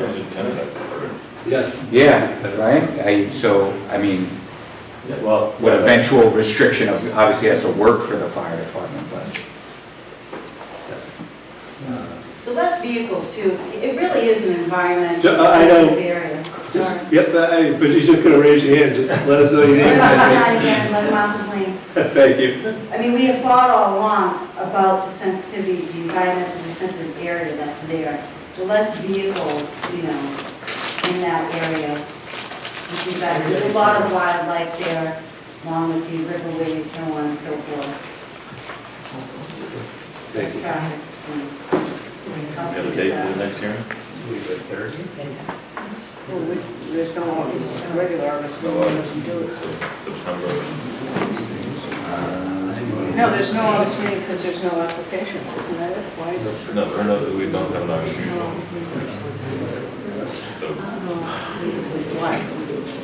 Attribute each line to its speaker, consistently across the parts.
Speaker 1: As a tenant, I prefer.
Speaker 2: Yeah.
Speaker 3: Yeah, right? I, so, I mean,
Speaker 1: Yeah, Well.
Speaker 3: what eventual restriction of, obviously has to work for the fire department, but.
Speaker 4: The less vehicles too, it really is an environment
Speaker 2: Yeah, I- I know.
Speaker 4: sensitive area. Sorry.
Speaker 2: Just, yep, I- but you're just gonna raise your hand, just let us know your name.
Speaker 4: Right outside
Speaker 2: and
Speaker 4: again, like Martha's Lane.
Speaker 2: address. Thank you.
Speaker 4: I mean, we have thought all along about the sensitivity, the environment, and the sensitive area that's there. The less vehicles, you know, in that area, would be better. There's a lot of wildlife there, along with the riverways, so on and so forth.
Speaker 2: Thank you.
Speaker 4: Tracks and-
Speaker 1: We have a date for the next hearing?
Speaker 5: Well, we- There's no August, a regular August meeting, we don't do it.
Speaker 1: September.
Speaker 5: No, there's no August meeting because there's no applications, isn't that it? Why?
Speaker 1: No, we're not, we don't have an August
Speaker 5: No.
Speaker 1: meeting. So,
Speaker 5: Why?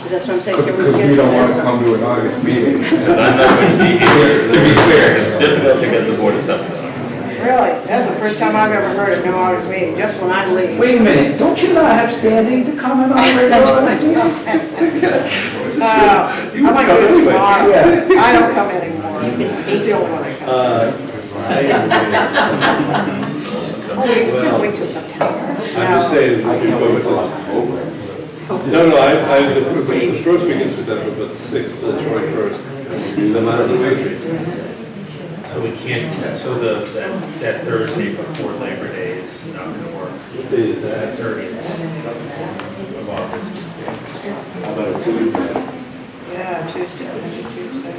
Speaker 5: That's what I'm saying, can we
Speaker 3: Because we
Speaker 5: schedule
Speaker 3: don't want
Speaker 5: this?
Speaker 3: to come to an August meeting.
Speaker 1: I'm not going to be here.
Speaker 3: To be fair.
Speaker 1: It's difficult to get the board to something on.
Speaker 5: Really? That's the first time I've ever heard of no August meeting, just when I leave.
Speaker 3: Wait a minute, don't you not have standing to comment on
Speaker 5: Oh.
Speaker 3: regular?
Speaker 5: Uh, I'm like,
Speaker 3: come
Speaker 5: good
Speaker 3: anyway.
Speaker 5: tomorrow.
Speaker 3: Yeah.
Speaker 5: I don't come anymore. He's the only one I come.
Speaker 2: Uh, I-
Speaker 5: Oh, we can wait till September.
Speaker 2: I'm just saying, we can go with this. No, no, I, I, it's the first week in September, but sixth to twenty-first, no matter the victory.
Speaker 6: So we can't, so the, that- that Thursday before Labor Day is not going to work,
Speaker 2: What day is uh, that?
Speaker 6: thirtieth of August.
Speaker 2: How about a Tuesday?
Speaker 5: Yeah, Tuesday, let's do Tuesday.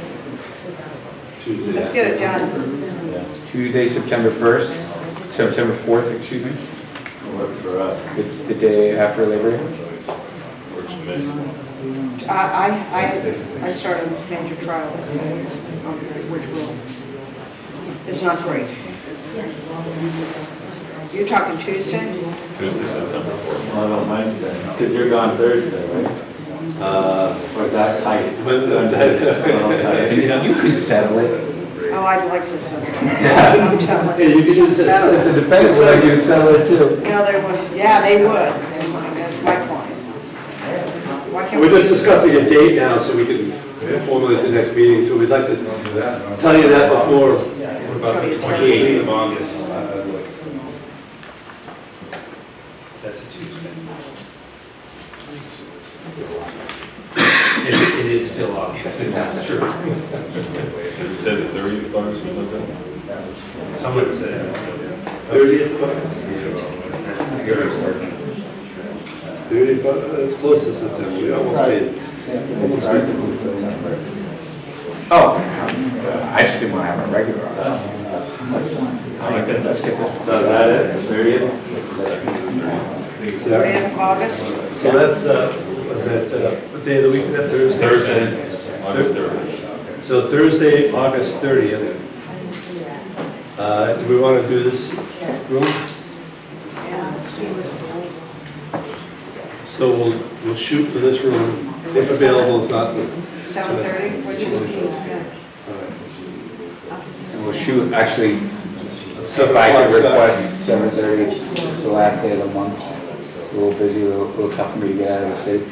Speaker 2: Tuesday.
Speaker 5: Let's get it done.
Speaker 2: Yeah.
Speaker 3: Tuesday, September 1st, September 4th, excuse me,
Speaker 2: Work for us.
Speaker 3: the the day after Labor Day.
Speaker 1: Works for me.
Speaker 5: I, I, I started a major trial, um, which will, it's not great. You're talking Tuesday?
Speaker 1: Tuesday, September fourth.
Speaker 7: Well, I don't mind that, because you're gone Thursday, right?
Speaker 2: Uh,
Speaker 7: Or is that tight?
Speaker 2: But, uh,
Speaker 3: You can settle it.
Speaker 5: Oh, I'd like to settle. I'm
Speaker 2: yeah,
Speaker 5: telling you.
Speaker 2: you could just. uh,
Speaker 5: Settle.
Speaker 3: The defense would like you to settle it too.
Speaker 5: No, they would, yeah, they would, They would. that's my point. Why can't we?
Speaker 2: We're just discussing a date now, so we can formulate the next meeting, so we'd like to tell you that before.
Speaker 6: What about the twenty-eighth of August? Uh, That's a Tuesday. It it is still August, that's true.
Speaker 1: Did you say the thirtieth of August, you looked at?
Speaker 6: Someone said.
Speaker 2: Thirty, but uh, it's close to September, we almost did.
Speaker 3: Oh, I just didn't want to have a regular August.
Speaker 7: So is that it, thirtieth?
Speaker 2: So
Speaker 5: End of August?
Speaker 2: so that's, uh, was that, uh, what day of the week, is that Thursday?
Speaker 1: Thursday, August third.
Speaker 2: So Thursday, August thirtieth. Uh, do we want to do this room? So we'll, we'll shoot for this room, if available, if not. we'll-
Speaker 5: Seven thirty, which is, yeah.
Speaker 3: And we'll shoot, actually, if
Speaker 2: Seven
Speaker 3: I could
Speaker 2: o'clock, seven.
Speaker 3: request 7:30, it's it's the last day of the month. It's a little busy, a little little tough for me to get out of the city.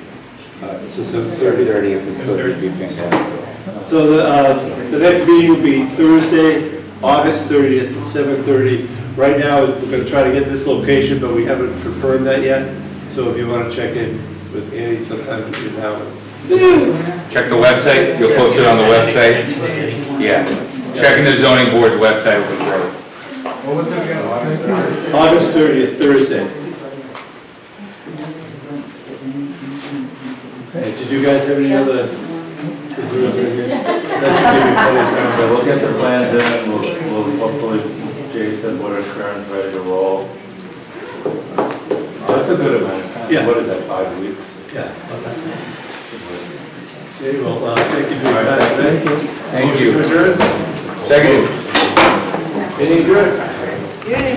Speaker 2: All right, So seven thirty.
Speaker 3: 30 if we could, would be fantastic.
Speaker 2: So the, uh, the next meeting will be Thursday, August 30th, at 7:30. Right now, we're going to try to get this location, but we haven't confirmed that yet. So if you want to check in with Andy sometime between now and
Speaker 3: Check the website, you'll post it on the website. Yeah, checking the zoning board's website would be great.
Speaker 2: August 30th, Thursday. Hey, Did you guys have any other? That
Speaker 7: So we'll get the plans in, we'll, we'll hopefully, Jason, what are current, ready to roll? That's a good amount of
Speaker 2: Yeah.
Speaker 7: time, what is that, five weeks?
Speaker 2: should be plenty of time. Yeah. Okay, well, uh, thank you for your time. Thank you.
Speaker 3: Thank
Speaker 2: Motion
Speaker 3: you.
Speaker 2: adjourned?
Speaker 3: Second.
Speaker 2: Meeting adjourned.
Speaker 5: You didn't even